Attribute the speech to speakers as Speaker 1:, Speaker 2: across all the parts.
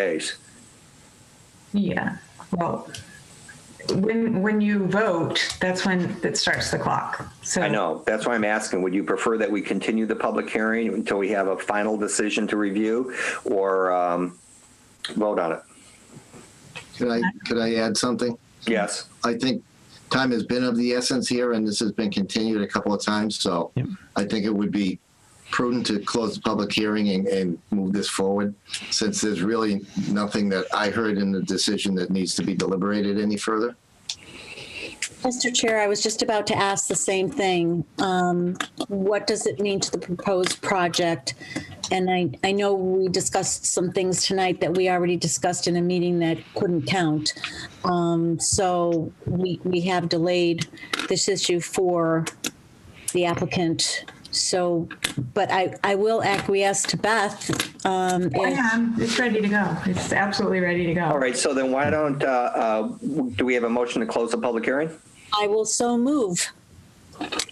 Speaker 1: days.
Speaker 2: Yeah, well, when, when you vote, that's when it starts the clock. So
Speaker 1: I know, that's why I'm asking, would you prefer that we continue the public hearing until we have a final decision to review or um, vote on it?
Speaker 3: Could I, could I add something?
Speaker 1: Yes,
Speaker 3: I think time has been of the essence here, and this has been continued a couple of times, so
Speaker 4: Yep.
Speaker 3: I think it would be prudent to close the public hearing and, and move this forward, since there's really nothing that I heard in the decision that needs to be deliberated any further.
Speaker 5: Mr. Chair, I was just about to ask the same thing. Um, What does it mean to the proposed project? And I, I know we discussed some things tonight that we already discussed in a meeting that couldn't count. Um, So we, we have delayed this issue for the applicant. So, but I, I will acquiesce to Beth. um,
Speaker 2: Oh,
Speaker 5: if-
Speaker 2: yeah, I'm- it's ready to go. It's absolutely ready to go.
Speaker 1: all right, so then why don't, uh, uh, do we have a motion to close the public hearing?
Speaker 5: I will so move.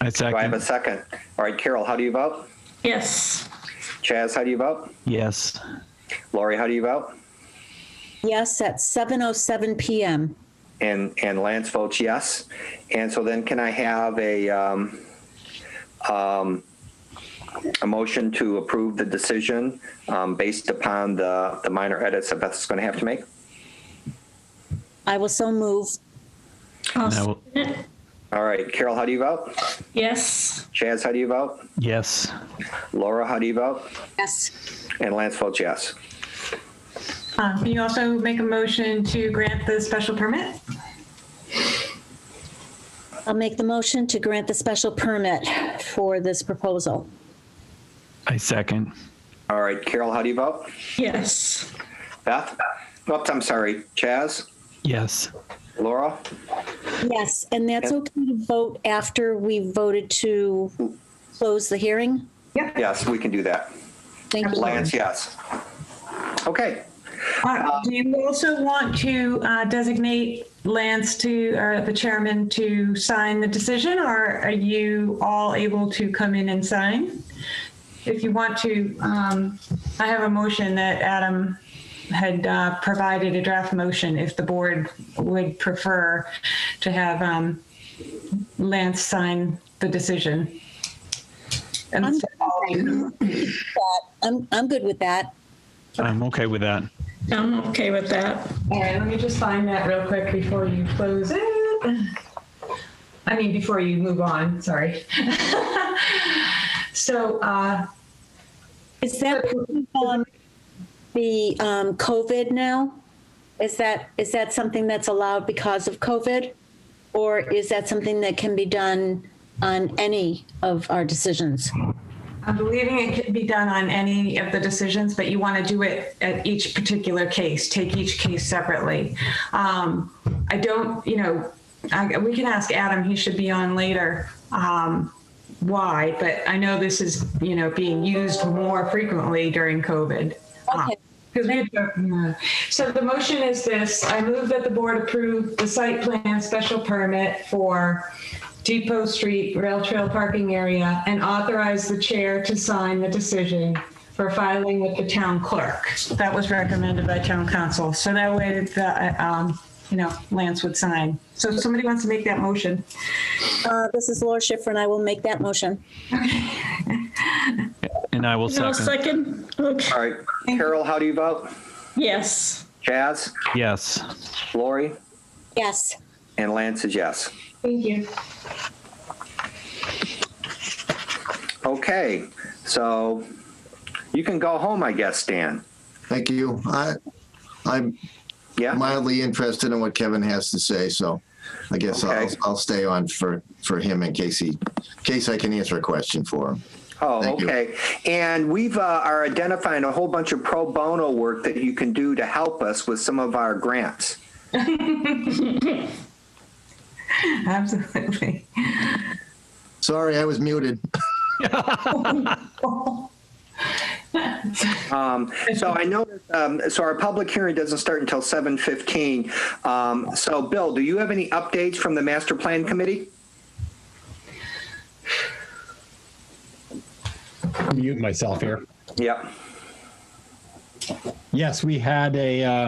Speaker 4: I
Speaker 1: Do I have a
Speaker 4: second.
Speaker 1: second? All right, Carol, how do you vote?
Speaker 6: Yes,
Speaker 1: Chaz, how do you vote?
Speaker 4: Yes.
Speaker 1: Lori, how do you vote?
Speaker 5: Yes, at 7:07 PM.
Speaker 1: And, and Lance votes yes. And so then can I have a, um, um, a motion to approve the decision, um, based upon the, the minor edits that Beth's going to have to make?
Speaker 5: I will so move.
Speaker 6: I'll
Speaker 4: No.
Speaker 6: second it.
Speaker 1: All right, Carol, how do you vote?
Speaker 6: Yes,
Speaker 1: Chaz, how do you vote?
Speaker 4: Yes.
Speaker 1: Laura, how do you vote?
Speaker 5: Yes.
Speaker 1: And Lance votes yes.
Speaker 2: Um, Can you also make a motion to grant the special permit?
Speaker 5: I'll make the motion to grant the special permit for this proposal.
Speaker 4: I second.
Speaker 1: All right, Carol, how do you vote?
Speaker 6: yes,
Speaker 1: Beth? Oops, I'm sorry. Chaz?
Speaker 4: Yes.
Speaker 1: Laura?
Speaker 5: Yes, and that's okay to vote after we voted to close the hearing?
Speaker 2: Yep.
Speaker 1: Yes, we can do that.
Speaker 5: Thank you.
Speaker 1: Lance, yes. Okay.
Speaker 2: Uh, Do you also want to uh, designate Lance to, or the chairman to sign the decision? Or are you all able to come in and sign? If you want to, um, I have a motion that Adam had uh, provided a draft motion if the board would prefer to have um, Lance sign the decision. And
Speaker 5: I'm-
Speaker 2: so all of you-
Speaker 5: I'm, I'm good with that.
Speaker 4: I'm okay with that.
Speaker 6: I'm okay with that.
Speaker 2: All right, let me just find that real quick before you close it. I mean, before you move on, sorry. So, uh,
Speaker 5: Is that um, the um, COVID now? Is that, is that something that's allowed because of COVID? Or is that something that can be done on any of our decisions?
Speaker 2: I'm believing it could be done on any of the decisions, but you want to do it at each particular case, take each case separately. Um, I don't, you know, I, we can ask Adam, he should be on later, um, why, but I know this is, you know, being used more frequently during COVID.
Speaker 5: Okay.
Speaker 2: Because we had to- yeah. So the motion is this, I move that the board approve the site plan special permit for Depot Street Rail Trail Parking Area and authorize the chair to sign the decision for filing with the town clerk. That was recommended by town council, so that way the, um, you know, Lance would sign. So if somebody wants to make that motion.
Speaker 5: Uh, This is Laura Schiffer, and I will make that motion.
Speaker 4: And I will
Speaker 6: I'll
Speaker 4: second.
Speaker 6: second, okay,
Speaker 1: All right, Carol, how do you vote?
Speaker 6: yes,
Speaker 1: Chaz?
Speaker 4: Yes.
Speaker 1: Lori?
Speaker 5: Yes.
Speaker 1: And Lance is yes.
Speaker 2: Thank you.
Speaker 1: Okay, so you can go home, I guess, Dan.
Speaker 3: Thank you. I, I'm
Speaker 1: Yeah?
Speaker 3: mildly interested in what Kevin has to say, so I guess I'll,
Speaker 1: Okay.
Speaker 3: I'll stay on for, for him in case he, in case I can answer a question for him.
Speaker 1: Oh,
Speaker 3: Thank you.
Speaker 1: okay. And we've, uh, are identifying a whole bunch of pro bono work that you can do to help us with some of our grants.
Speaker 2: Absolutely.
Speaker 3: Sorry, I was muted.
Speaker 1: Um, So I noticed, um, so our public hearing doesn't start until 7:15. Um, So Bill, do you have any updates from the master plan committee?
Speaker 7: mute myself here.
Speaker 1: Yep.
Speaker 4: Yes, we had a, uh,